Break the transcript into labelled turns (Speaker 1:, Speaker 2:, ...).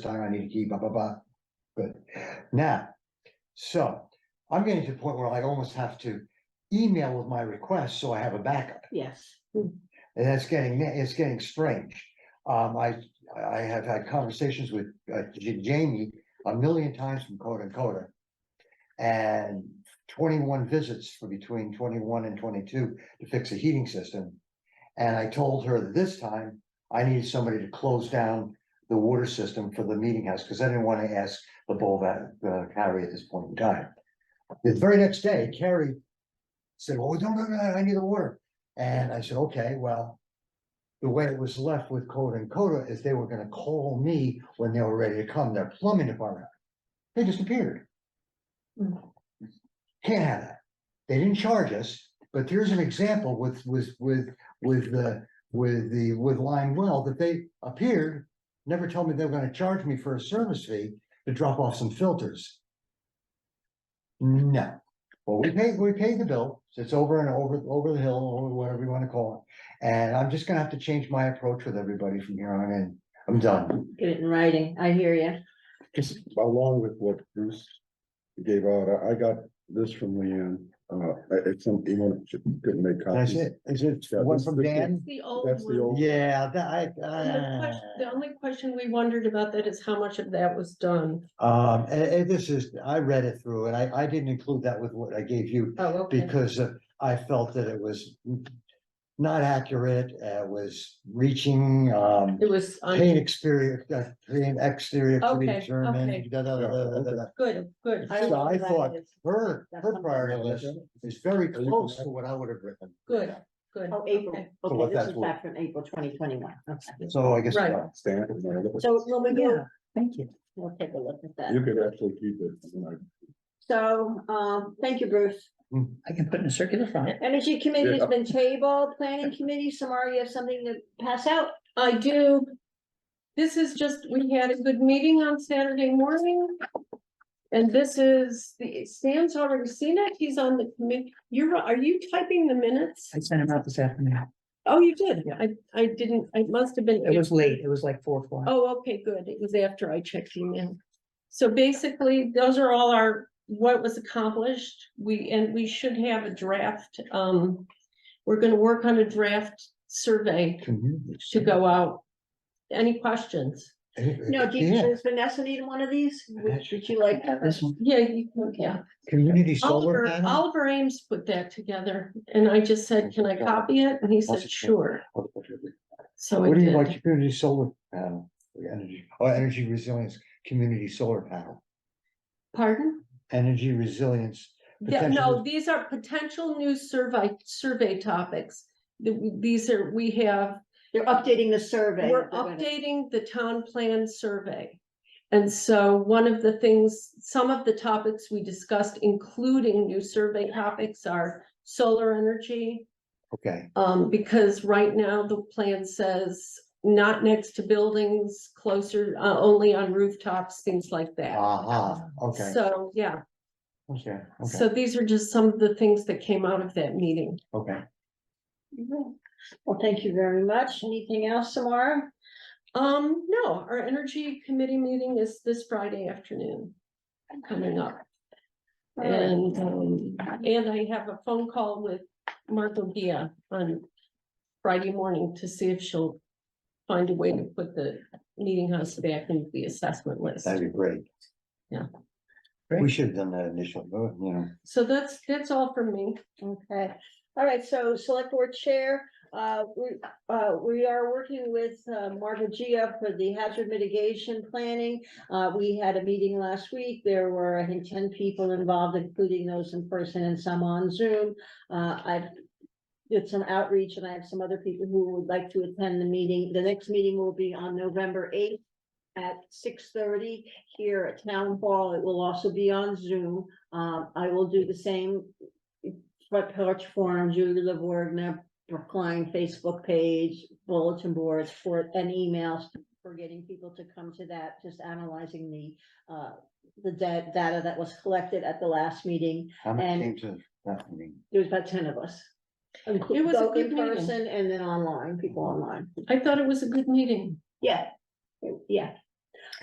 Speaker 1: time, I need to keep, blah, blah, blah. Good. Now, so I'm getting to the point where I almost have to email with my request, so I have a backup.
Speaker 2: Yes.
Speaker 1: And that's getting, it's getting strange. Um, I, I have had conversations with uh, J- Jamie a million times from Coda and Coda. And twenty-one visits for between twenty-one and twenty-two to fix a heating system. And I told her that this time I needed somebody to close down the water system for the meeting house, because I didn't want to ask the bull that, uh, Carrie at this point in time. The very next day, Carrie said, well, no, no, no, I need the water. And I said, okay, well. The way it was left with Coda and Coda is they were gonna call me when they were ready to come, their plumbing department. They disappeared.
Speaker 2: Mm.
Speaker 1: Can't have that. They didn't charge us, but here's an example with, with, with, with the, with the, with Lime Well, that they appeared. Never told me they were gonna charge me for a service fee to drop off some filters. No. Well, we paid, we paid the bill, so it's over and over, over the hill, or whatever you wanna call it. And I'm just gonna have to change my approach with everybody from here on in. I'm done.
Speaker 2: Get it in writing, I hear you.
Speaker 3: Just along with what Bruce gave out, I, I got this from Leanne, uh, it's some, you want, she couldn't make
Speaker 1: That's
Speaker 3: copies.
Speaker 1: it. Is it
Speaker 3: Yeah,
Speaker 1: one
Speaker 3: this-
Speaker 1: from
Speaker 3: this-
Speaker 1: Dan?
Speaker 4: The old
Speaker 3: That's the
Speaker 4: one.
Speaker 3: old-
Speaker 1: Yeah, that, I,
Speaker 4: And the
Speaker 1: uh,
Speaker 4: question- The only question we wondered about that is how much of that was done.
Speaker 1: um, and, and this is, I read it through and I, I didn't include that with what I gave you
Speaker 4: Oh, okay.
Speaker 1: because uh, I felt that it was not accurate, uh, was reaching, um,
Speaker 4: It was, on-
Speaker 1: paint exterior, uh, paint exterior to be
Speaker 4: Okay,
Speaker 1: determined,
Speaker 4: okay.
Speaker 1: da, da, da, da, da, da.
Speaker 4: good, good.
Speaker 1: So I thought- Her,
Speaker 2: That's
Speaker 1: her
Speaker 2: something.
Speaker 1: priority list is very close to what I would have written.
Speaker 4: Good, good.
Speaker 2: Oh, April,
Speaker 4: okay.
Speaker 1: So what
Speaker 2: okay, this
Speaker 1: that's
Speaker 2: is
Speaker 1: worth.
Speaker 2: back from April twenty twenty-one, okay.
Speaker 1: So I guess. uh,
Speaker 4: Right.
Speaker 3: Stan, you know,
Speaker 2: So when we
Speaker 4: Yeah.
Speaker 2: go, thank you, we'll take a look at
Speaker 3: you
Speaker 2: that.
Speaker 3: could actually keep it, and I-
Speaker 2: So, um, thank you, Bruce.
Speaker 1: mm.
Speaker 5: I can put in a circular front.
Speaker 2: Energy committee has been tabled, planning committee, Samara, you have something to pass out?
Speaker 4: I do. This is just, we had a good meeting on Saturday morning. And this is, the Stan's already seen it. He's on the committee. You're, are you typing the minutes?
Speaker 5: I sent him out this afternoon.
Speaker 4: Oh, you did. I, I didn't, I must have been.
Speaker 5: It was late. It was like four o'clock.
Speaker 4: Oh, okay, good. It was after I checked email. So basically, those are all our, what was accomplished. We, and we should have a draft. Um, we're gonna work on a draft survey to go out. Any questions?
Speaker 2: No, do you, does Vanessa need one of these? Would would you like?
Speaker 5: This one.
Speaker 4: Yeah, you, yeah.
Speaker 1: Community solar
Speaker 4: Oliver,
Speaker 1: panel?
Speaker 4: Oliver Ames put that together and I just said, can I copy it? And he
Speaker 1: Awesome.
Speaker 4: said, sure. So I
Speaker 1: What do you like,
Speaker 4: did.
Speaker 1: community solar panel, or energy, or energy resilience, community solar panel,
Speaker 4: Pardon?
Speaker 1: energy resilience.
Speaker 4: Yeah, no,
Speaker 1: potential-
Speaker 4: these are potential new survey, survey topics. Th- These are, we have
Speaker 2: They're updating the survey.
Speaker 4: We're
Speaker 2: They're gonna-
Speaker 4: updating the town plan survey. And so one of the things, some of the topics we discussed, including new survey topics are solar energy.
Speaker 1: Okay,
Speaker 4: Um, because right now the plan says not next to buildings, closer, uh, only on rooftops, things like that.
Speaker 1: aha, Ah, okay,
Speaker 4: So, yeah,
Speaker 1: okay, okay,
Speaker 4: so these are just some of the things that came out of that meeting.
Speaker 1: okay.
Speaker 2: Well, thank you very much. Anything else, Samara?
Speaker 4: Um, no, our energy committee meeting is this Friday afternoon coming up. And, um, and I have a phone call with Martha Gia on Friday morning to see if she'll find a way to put the meeting house back into the assessment list.
Speaker 1: That'd be great.
Speaker 4: Yeah.
Speaker 1: We should have done that initial, vote, you know.
Speaker 4: So that's, that's all from me.
Speaker 2: Okay, all right, so select board chair, uh, we, uh, we are working with, uh, Marta Gia for the hazard mitigation planning. Uh, we had a meeting last week, there were, I think, ten people involved, including those in person and some on Zoom. Uh, I did some outreach and I have some other people who would like to attend the meeting. The next meeting will be on November eighth at six thirty here at Town Hall. It will also be on Zoom. Um, I will do the same front porch forum, Julie LaVorgna, Brookline Facebook page, bulletin boards for, and emails for getting people to come to that, just analyzing the, uh, the da- data that was collected at the last meeting.
Speaker 1: How many came
Speaker 2: And-
Speaker 1: to that meeting?
Speaker 2: There was about ten of us.
Speaker 4: It was a
Speaker 2: Both
Speaker 4: good
Speaker 2: in
Speaker 4: meeting.
Speaker 2: person and then online, people online.
Speaker 4: I thought it was a good meeting.
Speaker 2: Yeah. Yeah,